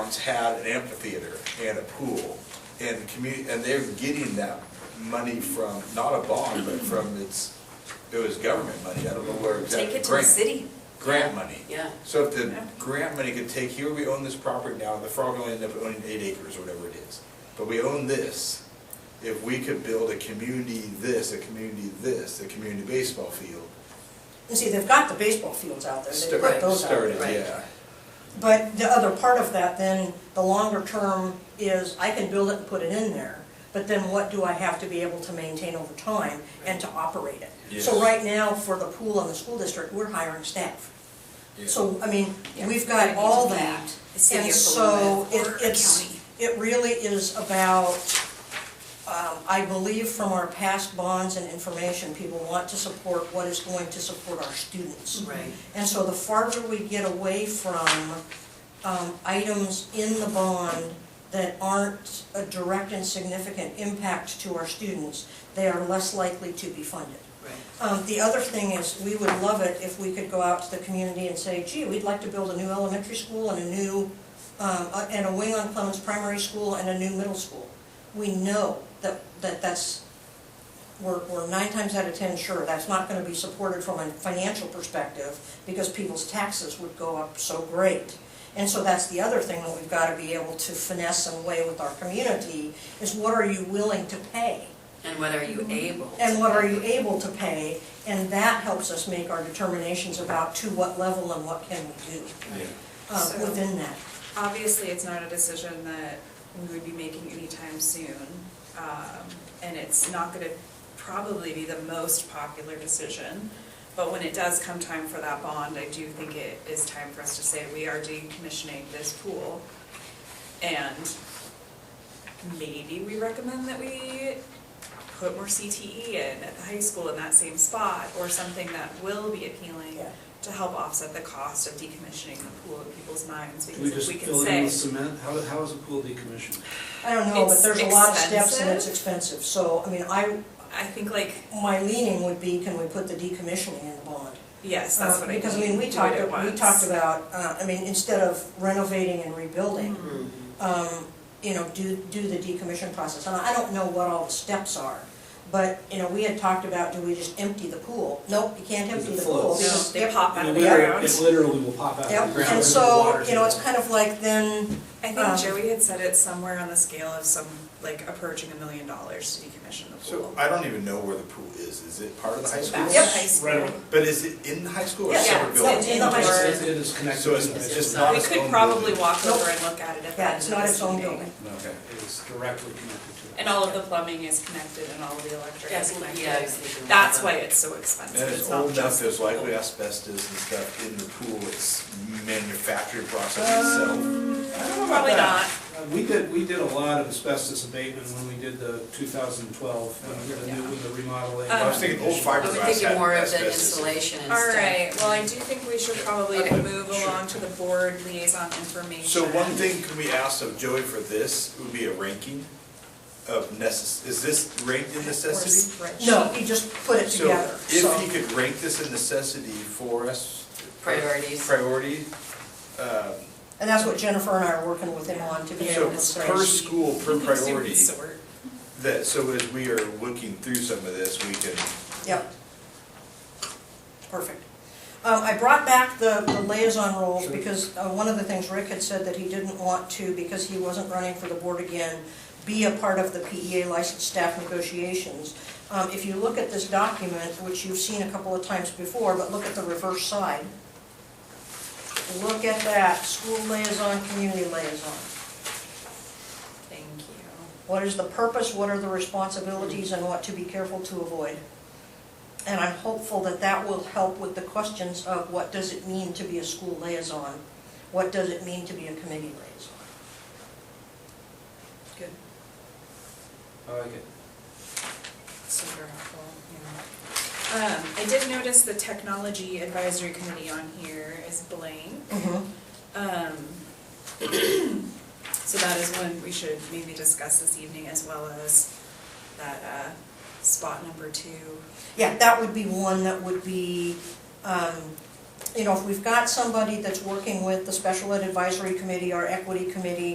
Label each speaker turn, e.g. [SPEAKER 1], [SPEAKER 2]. [SPEAKER 1] towns had an amphitheater and a pool, and the community, and they're getting that money from, not a bond, but from its, it was government money, I don't know where exactly.
[SPEAKER 2] Take it to the
[SPEAKER 1] grant-
[SPEAKER 2] city.
[SPEAKER 1] Grant money.
[SPEAKER 2] Yeah.
[SPEAKER 1] So if the grant money could take, here we own this property now, the frog only ended up owning eight acres, or whatever it is, but we own this. If we could build a community this, a community this, a community baseball field,
[SPEAKER 3] You see, they've got the baseball fields out there, they've got
[SPEAKER 1] started,
[SPEAKER 3] those out there.
[SPEAKER 1] started,
[SPEAKER 2] right.
[SPEAKER 1] yeah.
[SPEAKER 3] But the other part of that then, the longer term is I can build it and put it in there, but then what do I have to be able to maintain over time and to operate it? So
[SPEAKER 1] Yes.
[SPEAKER 3] right now, for the pool and the school district, we're hiring staff.
[SPEAKER 1] yeah.
[SPEAKER 3] So, I mean,
[SPEAKER 2] Yeah.
[SPEAKER 3] we've got all that.
[SPEAKER 2] The city
[SPEAKER 3] And
[SPEAKER 2] of
[SPEAKER 3] so
[SPEAKER 2] Philomath
[SPEAKER 3] it,
[SPEAKER 2] or
[SPEAKER 3] it's,
[SPEAKER 2] county.
[SPEAKER 3] it really is about, um, I believe from our past bonds and information, people want to support what is going to support our students.
[SPEAKER 2] Right.
[SPEAKER 3] And so the farther we get away from um, items in the bond that aren't a direct and significant impact to our students, they are less likely to be funded. Um, The other thing is, we would love it if we could go out to the community and say, gee, we'd like to build a new elementary school and a new, um, a- and a wing on Clemens Primary School and a new middle school. We know that, that that's, we're, we're nine times out of 10 sure that's not going to be supported from a financial perspective because people's taxes would go up so great. And so that's the other thing that we've got to be able to finesse and weigh with our community is what are you willing to pay?
[SPEAKER 2] And what are you able? to
[SPEAKER 3] And what are you
[SPEAKER 2] do?
[SPEAKER 3] able to pay? And that helps us make our determinations about to what level and what can we do uh,
[SPEAKER 4] So-
[SPEAKER 3] within that.
[SPEAKER 4] Obviously, it's not a decision that we would be making anytime soon, um, and it's not gonna probably be the most popular decision. But when it does come time for that bond, I do think it is time for us to say, we are decommissioning this pool. And maybe we recommend that we put more CTE in at the high school in that same spot, or something that will be appealing
[SPEAKER 3] Yeah.
[SPEAKER 4] to help offset the cost of decommissioning the pool in people's minds,
[SPEAKER 5] Can we
[SPEAKER 4] because if
[SPEAKER 5] just
[SPEAKER 4] we can
[SPEAKER 5] fill it in
[SPEAKER 4] say,
[SPEAKER 5] with cement? How, how is a pool decommissioned?
[SPEAKER 3] I don't know, but
[SPEAKER 4] It's
[SPEAKER 3] there's a lot of steps and it's expensive. So, I mean, I,
[SPEAKER 4] I think like,
[SPEAKER 3] my leaning would be, can we put the decommissioning in the bond?
[SPEAKER 4] yes, that's
[SPEAKER 3] Uh,
[SPEAKER 4] what I mean.
[SPEAKER 3] Because, I mean, we
[SPEAKER 4] do it
[SPEAKER 3] talked,
[SPEAKER 4] at
[SPEAKER 3] we
[SPEAKER 4] once.
[SPEAKER 3] talked about, uh, I mean, instead of renovating and rebuilding,
[SPEAKER 4] Mm-hmm.
[SPEAKER 3] um, you know, do, do the decommission process. And I don't know what all the steps are, but, you know, we had talked about, do we just empty the pool? Nope, you can't
[SPEAKER 5] Because
[SPEAKER 3] empty the
[SPEAKER 5] it
[SPEAKER 3] pool.
[SPEAKER 5] floats.
[SPEAKER 4] No,
[SPEAKER 3] because
[SPEAKER 4] they
[SPEAKER 3] every-
[SPEAKER 4] pop out
[SPEAKER 5] It
[SPEAKER 4] of the
[SPEAKER 5] literally,
[SPEAKER 4] ground.
[SPEAKER 5] it literally will pop out of the ground.
[SPEAKER 3] Yep, and
[SPEAKER 5] into the
[SPEAKER 3] so,
[SPEAKER 5] water's
[SPEAKER 3] you know, it's
[SPEAKER 5] in.
[SPEAKER 3] kind of like then,
[SPEAKER 4] I
[SPEAKER 3] um,
[SPEAKER 4] think Joey had said it's somewhere on the scale of some, like approaching a million dollars to decommission the
[SPEAKER 1] So
[SPEAKER 4] pool.
[SPEAKER 1] I don't even know where the pool is. Is it part of the high school?
[SPEAKER 4] Back
[SPEAKER 3] Yep.
[SPEAKER 4] to high school.
[SPEAKER 5] Right away.
[SPEAKER 1] But is it in the high school or a
[SPEAKER 4] Yeah,
[SPEAKER 1] separate
[SPEAKER 4] yeah,
[SPEAKER 1] building?
[SPEAKER 4] it's
[SPEAKER 3] in the high
[SPEAKER 5] It
[SPEAKER 3] school.
[SPEAKER 5] is- It is connected.
[SPEAKER 1] So it's
[SPEAKER 5] to the-
[SPEAKER 1] it's just not
[SPEAKER 4] We
[SPEAKER 1] its
[SPEAKER 4] could
[SPEAKER 1] own
[SPEAKER 4] probably
[SPEAKER 1] building.
[SPEAKER 4] walk
[SPEAKER 3] Nope.
[SPEAKER 4] over and look at it at the
[SPEAKER 3] yeah,
[SPEAKER 4] end
[SPEAKER 3] it's
[SPEAKER 4] of
[SPEAKER 3] not
[SPEAKER 4] this
[SPEAKER 3] its own
[SPEAKER 4] meeting.
[SPEAKER 3] building.
[SPEAKER 1] Okay.
[SPEAKER 5] It is directly connected to it.
[SPEAKER 4] And all of the plumbing is connected and all of the electric
[SPEAKER 2] Yes,
[SPEAKER 4] is connected.
[SPEAKER 2] yeah, I was thinking
[SPEAKER 4] That's
[SPEAKER 2] that.
[SPEAKER 4] why it's so expensive.
[SPEAKER 1] And it's
[SPEAKER 4] not
[SPEAKER 1] old enough,
[SPEAKER 4] just
[SPEAKER 1] there's
[SPEAKER 4] the pool.
[SPEAKER 1] likely asbestos and stuff in the pool, it's manufacturing process itself.
[SPEAKER 4] Probably not.
[SPEAKER 5] Uh, We did, we did a lot of asbestos abatement when we did the 2012, when we did the new, when the remodeling.
[SPEAKER 1] I was thinking old
[SPEAKER 2] I was
[SPEAKER 1] fiberglass
[SPEAKER 2] thinking
[SPEAKER 1] had
[SPEAKER 2] more of the
[SPEAKER 1] asbestos.
[SPEAKER 2] insulation and stuff.
[SPEAKER 4] All right, well, I do think we should probably
[SPEAKER 1] Okay.
[SPEAKER 4] move
[SPEAKER 1] Sure.
[SPEAKER 4] along to the board liaison information.
[SPEAKER 1] So one thing can we ask of Joey for this would be a ranking of necess, is this ranked in necessity?
[SPEAKER 4] Or spreadsheet.
[SPEAKER 3] No, you just put it
[SPEAKER 1] So
[SPEAKER 3] together, so.
[SPEAKER 1] if he could rank this in necessity for us.
[SPEAKER 2] Priorities.
[SPEAKER 1] Priority, um,
[SPEAKER 3] And that's what Jennifer and I are working with him on to be
[SPEAKER 1] so
[SPEAKER 3] able to say.
[SPEAKER 1] per school, per
[SPEAKER 4] You can do
[SPEAKER 1] priority.
[SPEAKER 4] sort.
[SPEAKER 1] That, so as we are looking through some of this, we can,
[SPEAKER 3] Yep. Perfect. Um, I brought back the the liaison roles
[SPEAKER 5] Sure.
[SPEAKER 3] because uh, one of the things Rick had said that he didn't want to, because he wasn't running for the board again, be a part of the PEA licensed staff negotiations. Um, If you look at this document, which you've seen a couple of times before, but look at the reverse side. Look at that, school liaison, community liaison.
[SPEAKER 4] Thank you.
[SPEAKER 3] What is the purpose, what are the responsibilities, and what to be careful to avoid? And I'm hopeful that that will help with the questions of what does it mean to be a school liaison? What does it mean to be a committee liaison?
[SPEAKER 4] Good.
[SPEAKER 5] I like it.
[SPEAKER 4] Super helpful, yeah. Um, I did notice the technology advisory committee on here is blank. Um, So that is one we should maybe discuss this evening as well as that uh, spot number two.
[SPEAKER 3] Yeah, that would be one that would be um, you know, if we've got somebody that's working with the special ed advisory committee, our equity committee,